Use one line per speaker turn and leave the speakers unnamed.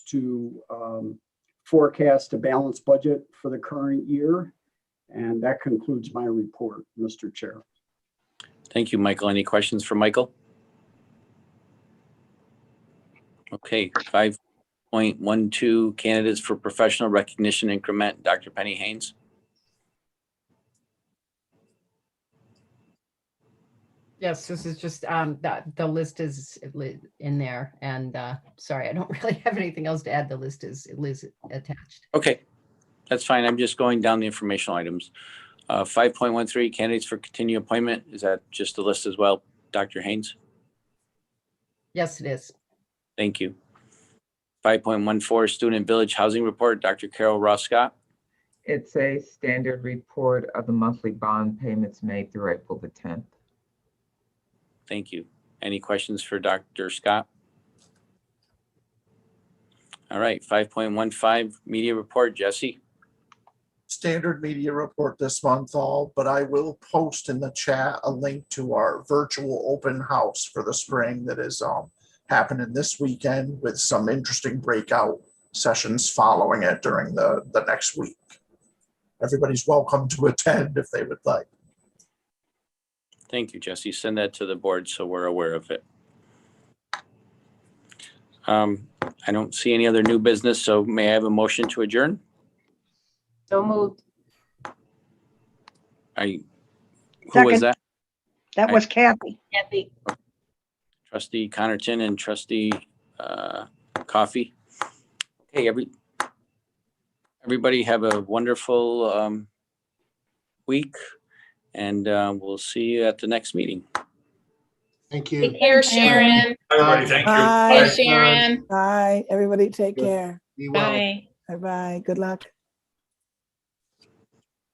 to um, forecast a balanced budget for the current year. And that concludes my report, Mr. Chair.
Thank you, Michael. Any questions for Michael? Okay, five point one two candidates for professional recognition increment, Dr. Penny Haynes.
Yes, this is just, um, the, the list is li- in there and, uh, sorry, I don't really have anything else to add. The list is, Liz attached.
Okay, that's fine. I'm just going down the informational items. Uh, five point one three candidates for continued appointment. Is that just the list as well, Dr. Haynes?
Yes, it is.
Thank you. Five point one four student village housing report, Dr. Carol Ross Scott.
It's a standard report of the monthly bond payments made through April the 10th.
Thank you. Any questions for Dr. Scott? All right, five point one five media report, Jesse.
standard media report this month all, but I will post in the chat a link to our virtual open house for the spring that is um happening this weekend with some interesting breakout sessions following it during the the next week. Everybody's welcome to attend if they would like.
Thank you, Jesse. Send that to the board so we're aware of it. Um, I don't see any other new business, so may I have a motion to adjourn?
So moved.
I, who was
Second.
that?
That
I-
was Kathy.
Kathy.
Trustee Connerton and trustee uh, Coffee. Hey, every, everybody have a wonderful um, week, and uh, we'll see you at the next meeting.
Thank you.
Take care, Sharon.
Everybody, thank you.
Bye,
Bye.
Sharon.
Bye, everybody take care.
Be well.
Bye.
Bye-bye. Good luck.